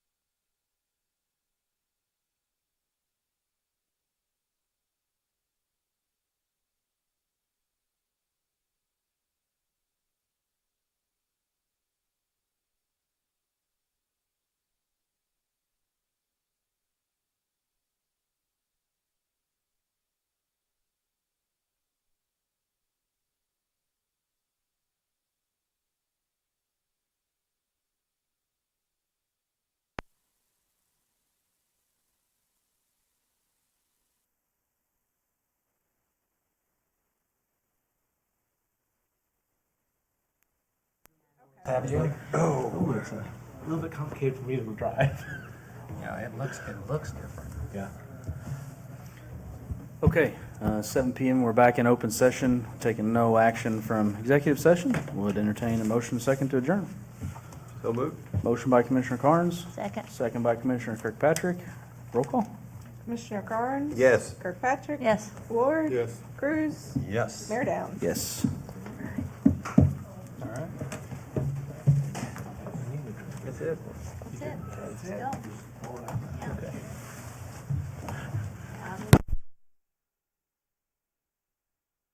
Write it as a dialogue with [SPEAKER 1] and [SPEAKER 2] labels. [SPEAKER 1] Have you?
[SPEAKER 2] Ooh, it's oh, a little bit complicated for me to drive.
[SPEAKER 1] Yeah, it looks, it looks different.
[SPEAKER 2] Yeah.
[SPEAKER 3] Okay, uh, 7 PM, we're back in open session, taking no action from executive session. Would entertain a motion second to adjourn.
[SPEAKER 4] So moved.
[SPEAKER 3] Motion by Commissioner Carnes,
[SPEAKER 5] Second.
[SPEAKER 3] second by Commissioner Kirkpatrick. Roll call.
[SPEAKER 6] Commissioner Carnes?
[SPEAKER 4] Yes.
[SPEAKER 6] Kirkpatrick?
[SPEAKER 5] Yes.
[SPEAKER 6] Ward?
[SPEAKER 4] Yes.
[SPEAKER 6] Cruz?
[SPEAKER 4] Yes.
[SPEAKER 6] Mayor Downs?
[SPEAKER 3] Yes.
[SPEAKER 4] That's it.
[SPEAKER 5] That's it. Let's go.